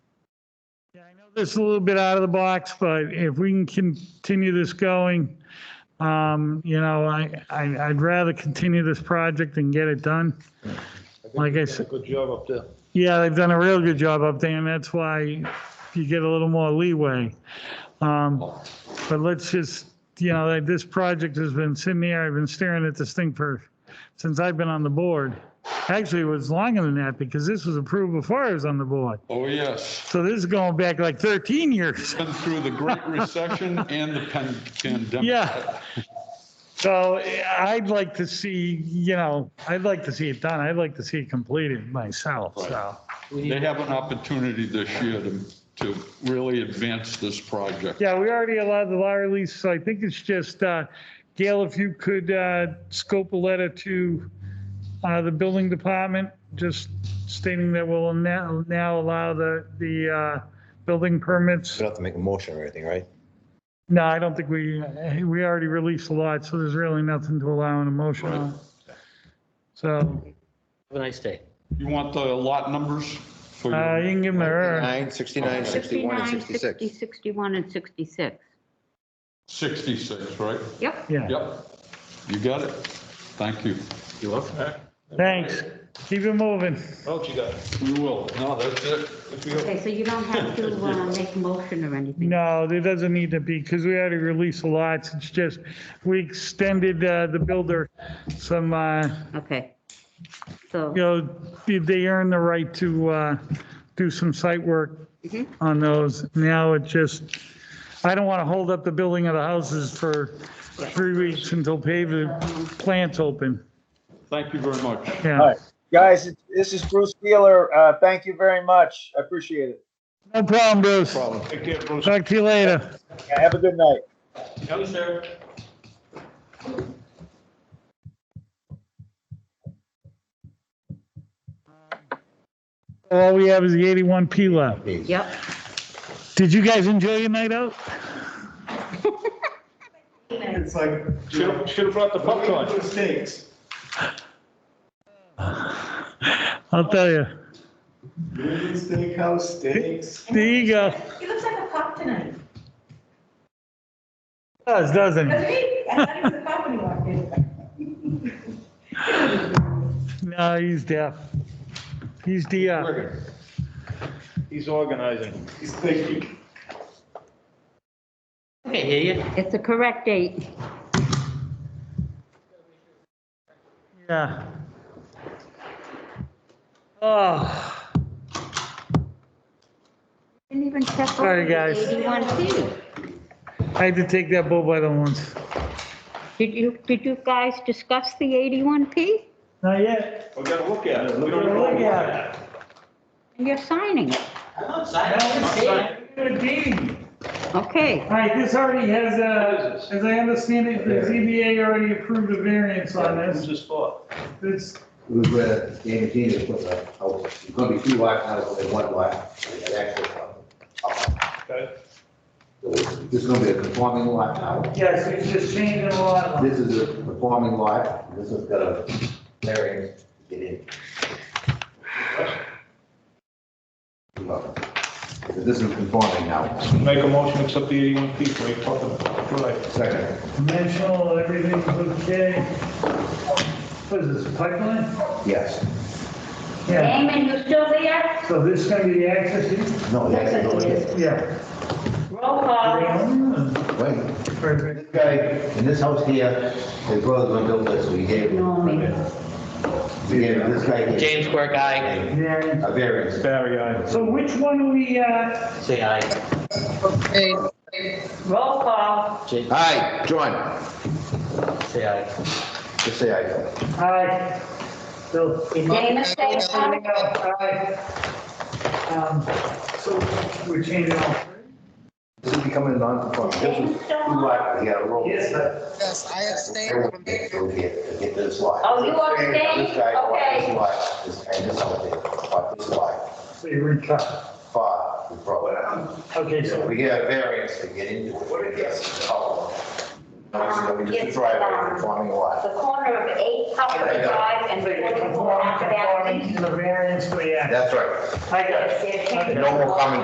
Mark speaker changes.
Speaker 1: This is a little bit out of the box, but if we can continue this going, um, you know, I, I- I'd rather continue this project and get it done.
Speaker 2: think
Speaker 1: Like I
Speaker 2: you've done
Speaker 1: said-
Speaker 2: a Good job up there.
Speaker 1: Yeah, they've done a real good job up there, and that's why you get a little more leeway. Um, But let's just, you know, like, this project has been sitting there, I've been staring at this thing for, since I've been on the board. Actually, it was longer than that, because this was approved before I was on the board.
Speaker 3: Oh, yes.
Speaker 1: So this is going back like 13 years.
Speaker 3: Been through the Great Recession and the pan- pandemic.
Speaker 1: Yeah. So eh, I'd like to see, you know, I'd like to see it done. I'd like to see it completed myself, so.
Speaker 3: They have an opportunity this year to, to really advance this project.
Speaker 1: Yeah, we already allowed the law release, so I think it's just, uh, Gail, if you could uh, scope a letter to uh, the building department, just stating that we'll now now allow the, the uh, building permits.
Speaker 4: We don't have to make a motion or anything, right?
Speaker 1: No, I don't think we, eh, we already released a lot, so there's really nothing to allow an emotion on. So
Speaker 5: Have a nice day.
Speaker 3: You want the lot numbers for
Speaker 1: uh, you
Speaker 3: your,
Speaker 1: can give them her.
Speaker 4: 69, 69, 61, and 66.
Speaker 6: 60, 61, and 66.
Speaker 3: 66, right?
Speaker 6: Yep.
Speaker 1: Yeah,
Speaker 3: Yep. You got it. Thank you.
Speaker 5: You welcome.
Speaker 1: thanks. Keep it moving.
Speaker 2: Oh, you got? it.
Speaker 3: We will. No, that's it.
Speaker 6: Okay, so you don't have to uh, make a motion or anything.
Speaker 1: No, there doesn't need to be, because we already released the lots. It's just, we extended uh, the builder some, uh,
Speaker 6: Okay. So,
Speaker 1: you know, they- they earned the right to uh, do some site work
Speaker 6: Mhm.
Speaker 1: on those. Now it just, I don't want to hold up the building of the houses for three weeks until paving plants open.
Speaker 3: Thank you very much.
Speaker 7: All
Speaker 1: Yeah,
Speaker 7: right. Guys, it- this is Bruce Wheeler. Uh, thank you very much. I appreciate it.
Speaker 1: no problem, Bruce.
Speaker 2: Take care, Bruce.
Speaker 1: Talk to you later.
Speaker 7: Yeah, Have a good night.
Speaker 2: Yes, sir.
Speaker 1: All we have is the 81P left.
Speaker 6: yep.
Speaker 1: Did you guys enjoy your night out?
Speaker 8: It's like, oh,
Speaker 2: Should have brought the popcorn.
Speaker 8: mistakes.
Speaker 1: I'll tell you.
Speaker 8: Union Steakhouse steaks.
Speaker 1: There you go.
Speaker 9: He looks like a cop tonight.
Speaker 1: Does, doesn't he?
Speaker 9: Doesn't he? I thought he was a cop when he walked in.
Speaker 1: No, he's deaf. He's deaf.
Speaker 2: He's organizing.
Speaker 8: He's thinking.
Speaker 5: I can hear you.
Speaker 6: It's the correct date.
Speaker 1: Yeah. Oh,
Speaker 6: Didn't even check.
Speaker 1: Sorry,
Speaker 6: over the
Speaker 1: guys.
Speaker 6: 81P.
Speaker 1: I had to take that bull by the horns.
Speaker 6: Did you, did you guys discuss the 81P?
Speaker 1: Not yet.
Speaker 2: We gotta look at it. We
Speaker 1: We're
Speaker 2: don't
Speaker 1: gonna
Speaker 2: know.
Speaker 1: look at
Speaker 6: And you're signing it. Okay.
Speaker 1: All right, this already has, uh, as I understand it, the ZBA already approved a variance on
Speaker 2: Who's
Speaker 1: this.
Speaker 2: this for?
Speaker 1: It's,
Speaker 4: It was where Dan and Gina put the, oh, it's gonna be two lot articles and one lot. so they got access up- up.
Speaker 2: Okay.
Speaker 4: So This is gonna be a conforming lot now.
Speaker 1: yes, it's just changing a lot.
Speaker 4: This is a conforming lot. This has got a variance to get in. Look, This is conforming now.
Speaker 2: Make a motion, to accept the 81P, what are you talking about? Right.
Speaker 4: Second.
Speaker 1: Dimensional, everything's okay. What is this, pipeline?
Speaker 4: Yes.
Speaker 1: Yeah,
Speaker 6: Damon, you still there?
Speaker 1: so this is gonna be the access?
Speaker 4: No, that's
Speaker 6: Yes, it is.
Speaker 1: Yeah.
Speaker 6: Roll call.
Speaker 1: uh,
Speaker 4: Wait.
Speaker 1: Perfect.
Speaker 4: This guy, in this house here, his brother's gonna build this, so we gave him.
Speaker 6: No, me.
Speaker 4: We gave him this guy. here
Speaker 5: James Quirk, aye.
Speaker 4: A
Speaker 1: Yeah.
Speaker 4: variance.
Speaker 2: Barry, aye.
Speaker 1: So which one are we, uh,
Speaker 5: Say aye.
Speaker 6: Roll call.
Speaker 5: Jake,
Speaker 4: Aye, John,
Speaker 5: say aye.
Speaker 4: just say aye.
Speaker 1: aye? Bill?
Speaker 6: Damon, say aye.
Speaker 1: Um, So we're changing all.
Speaker 4: This is becoming non-conforming. This was too lot, he got a roll.
Speaker 1: Yes.
Speaker 10: Yes, I abstain
Speaker 4: Everyone
Speaker 10: from
Speaker 4: gets to Get to get this lot.
Speaker 6: Oh, you abstained?
Speaker 4: This guy bought this
Speaker 6: Okay.
Speaker 4: lot, this guy, this out there, bought this lot,
Speaker 1: So you recut.
Speaker 4: far, we brought it out.
Speaker 1: Okay,
Speaker 4: So
Speaker 1: so,
Speaker 4: we get a variance to get into it, what it is. No, it's gonna be
Speaker 6: It's,
Speaker 4: just a driveway,
Speaker 6: um,
Speaker 4: conforming lot.
Speaker 6: The corner of 8 Poplar Drive and
Speaker 1: Wait, wait,
Speaker 6: 44
Speaker 1: conforming,
Speaker 6: Acton Avenue.
Speaker 1: conforming to the variance for the access.
Speaker 4: That's right.
Speaker 1: I got it.
Speaker 6: Yes, yes, yes.
Speaker 4: No more common